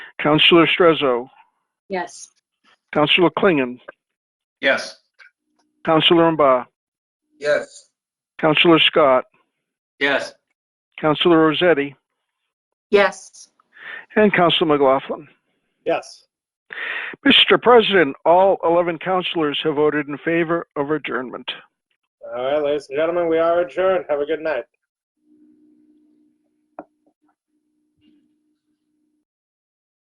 Counselor Strezzo, Yes. Counselor Klingon, Yes. Counselor Mba, Yes. Counselor Scott, Yes. Counselor Rossetti, Yes. and Counselor McLaughlin. Yes. Mr. President, all 11 counselors have voted in favor of adjournment. All right, ladies and gentlemen, we are adjourned. Have a good night.